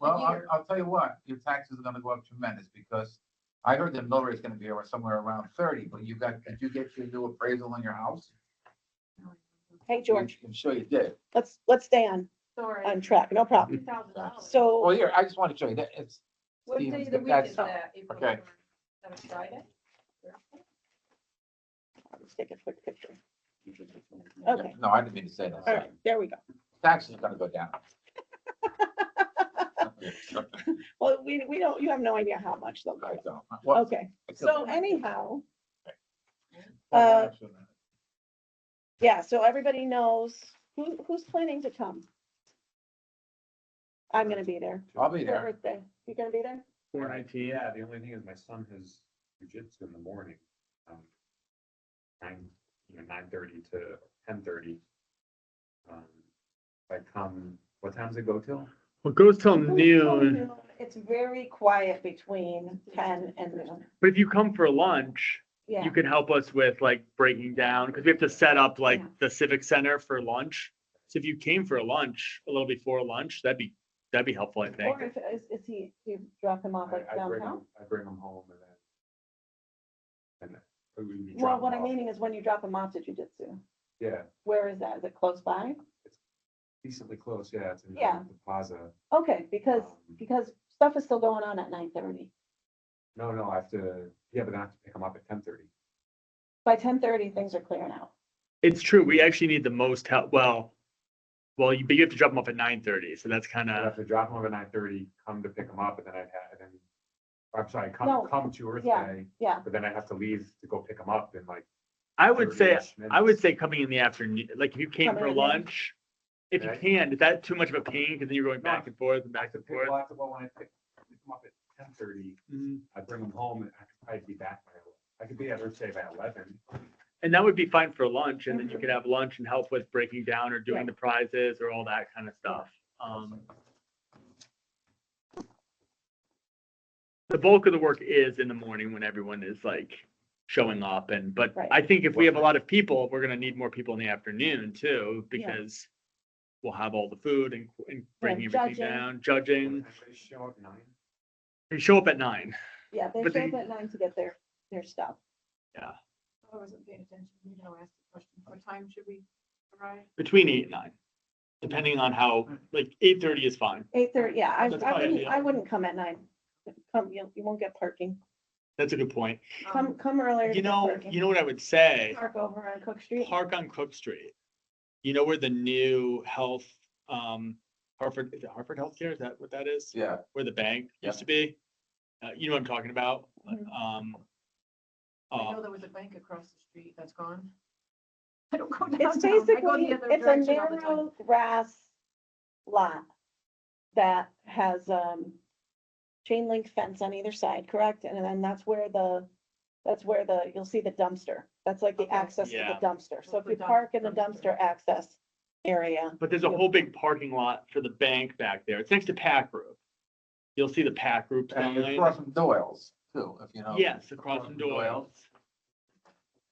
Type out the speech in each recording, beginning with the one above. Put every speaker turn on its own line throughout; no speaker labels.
Well, I'll,
year.
I'll tell you what, your taxes are gonna go up tremendous, because I heard that mill rate's gonna be around- somewhere around thirty, but you got, did you get your new appraisal on your house?
Hey, George,
I'm sure you did.
let's, let's stay on,
Sorry.
on track, no problem.
$2,000.
So,
Oh,
Well, here, I just wanna show you that, it's,
What day
Stevens,
of the
but
week
that's-
is that? April
okay.
4th? Is that a Friday?
let's take a quick picture. Okay,
no, I didn't mean to say that,
all
sorry.
right, there we go.
Taxes are gonna go down.
Well, we, we don't, you have no idea how much they'll
I
go.
don't. Well,
Okay, so anyhow,
well,
yeah, so everybody knows who, who's planning to come. I'm gonna be there.
I'll be
Your
there.
birthday. You gonna be there?
Four nineteen, yeah, the only thing is my son has jujitsu in the morning. um, Nine, you know, nine thirty to ten thirty. Um, If I come, what times it go till?
Well, it goes till noon,
It's very quiet between ten and noon.
but if you come for lunch,
Yeah,
you can help us with like breaking down, because we have to set up like
Yeah.
the civic center for lunch. So if you came for lunch, a little before lunch, that'd be, that'd be helpful, I think.
or if, is, is he, do you drop him
I
off like
I bring
downtown?
him, I bring him home and then. and then we- we
Well,
drop
what
him
I'm
off.
meaning is when you drop him off to jujitsu,
Yeah,
where is that? Is it close by?
decently close, yeah, it's in
Yeah.
the plaza.
Okay, because,
Um,
because stuff is still going on at nine thirty.
No, no, I have to, yeah, but I have to pick him up at ten thirty.
By ten thirty, things are clearing out.
It's true, we actually need the most help, well, well, you, but you have to drop them off at nine thirty, so that's kind
I'd
of,
have to drop him off at nine thirty, come to pick him up, and then I'd have, and then, I'm sorry,
No,
come, come to Earth
yeah,
Day,
Yeah,
but then I'd have to leave to go pick him up in like.
I would say,
30-ish minutes.
I would say coming in the afternoon, like if you came
Coming
for
in the-
lunch, if you
Right.
can, is that too much of a pain? Because then you're going
No.
back and forth and back
To
and
pick
forth.
well, I have to- well, when I pick, pick him up at ten thirty,
Mm.
I bring him home, and I could probably be back by, eleven. I could be at Earth Day by eleven.
And that would be fine for lunch, and then you could have lunch and help with breaking down or doing the prizes or all that kind of stuff. Um, The bulk of the work is in the morning when everyone is like showing up and, but
Right.
I think if we have a lot of people, we're gonna need more people in the afternoon too,
Yeah.
because we'll have all the food and, and breaking
judging.
everything down,
And
judging.
I show up at nine.
They show up at nine.
yeah, they
But
show up
they-
at nine to get their, their stuff.
Oh, I wasn't paying attention. You know, I asked the question. What time should we arrive?
between eight and nine, depending on how, like, eight thirty is fine.
Eight thirty, yeah, I,
That's
I
fine,
wouldn't,
yeah.
I wouldn't come at nine. Come, you, you won't get parking.
That's a good point.
Um,
Come, come earlier. to
Um, You
get
know,
parking.
you know what I would say?
Park over on Cook Street.
Park on Cook Street. You know where the new health, um, Hartford, is it Hartford Healthcare? Is that what that is?
Yeah,
Where the bank
Yeah.
used to be? Uh, you know what I'm talking about?
Mhm.
Um.
I
uh,
know there was a bank across the street that's gone. I don't go downtown.
It's
I go the
basically,
other
it's a
direction all the time.
narrow grass lot that has, um, chain link fence on either side, correct? And then that's where the, that's where the, you'll see the dumpster. That's like the
Okay.
access to
Yeah.
the dumpster. So if
The
you
dump-
park in the
dumpster.
dumpster access area,
But there's a whole big parking lot for the bank back there. It's next to Pack Group. You'll see the Pack Group
and it's
sign.
across from Doyle's too, if you know.
Yes, across from Doyle's.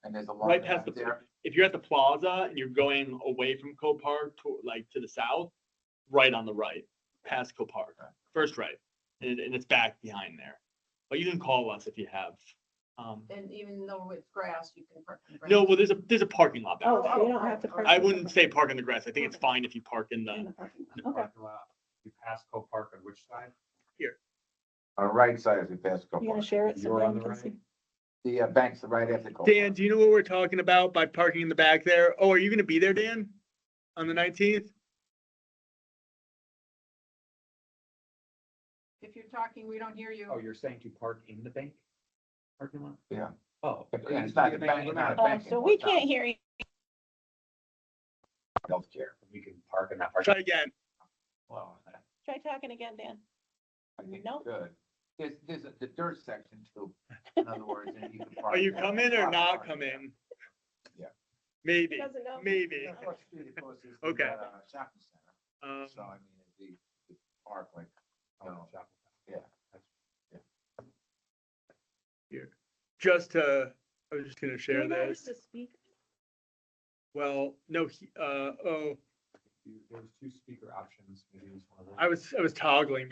And there's a lot.
right past the,
there.
if you're at the plaza and you're going away from Copart to, like, to the south, right on the right, past Copart, first right, and, and it's back behind there. But you can call us if you have, um,
And even though it's grass, you can park. in the
no,
grass.
well, there's a, there's a parking lot back
oh,
there.
so you don't have to.
I
park
I
in the
wouldn't
park-
say park in the grass, I think it's fine if you park in
in
the,
the parking lot.
in the
Okay.
parking lot. You pass Copart Park on which side?
On the right side as we pass. Copart.
You gonna share it so
You're
Brian
on the
can
right.
see?
The uh, bank's right after. Copart.
Dan, do you know what we're talking about by parking in the back there? Oh, are you gonna be there, Dan, on the nineteenth?
If you're talking, we don't hear you.
Oh, you're saying to park in the bank? Parking lot?
Yeah.
Oh.
Yeah, It's not the bank, it's not a
Uh,
bank.
So we can't hear you.
Healthcare.
We can park in that parking.
Try again.
Well,
Try talking again, Dan.
I think
Nope.
Good. There's, there's a- the dirt section too, in other words. and you can park
Are you
there.
coming or not
Park there.
coming?
Yeah.
He
Maybe,
doesn't know.
maybe.
Yeah, of course, it's pretty close, it's the,
Okay.
uh, Shopping center,
Um,
so I mean, it'd be, the park like,
lot.
No.
Shop.
just to, I was just gonna share
Maybe I
this.
should speak.
Well, no, he- uh, oh,
You- There's two speaker options. maybe it's one of those.
I was, I was toggling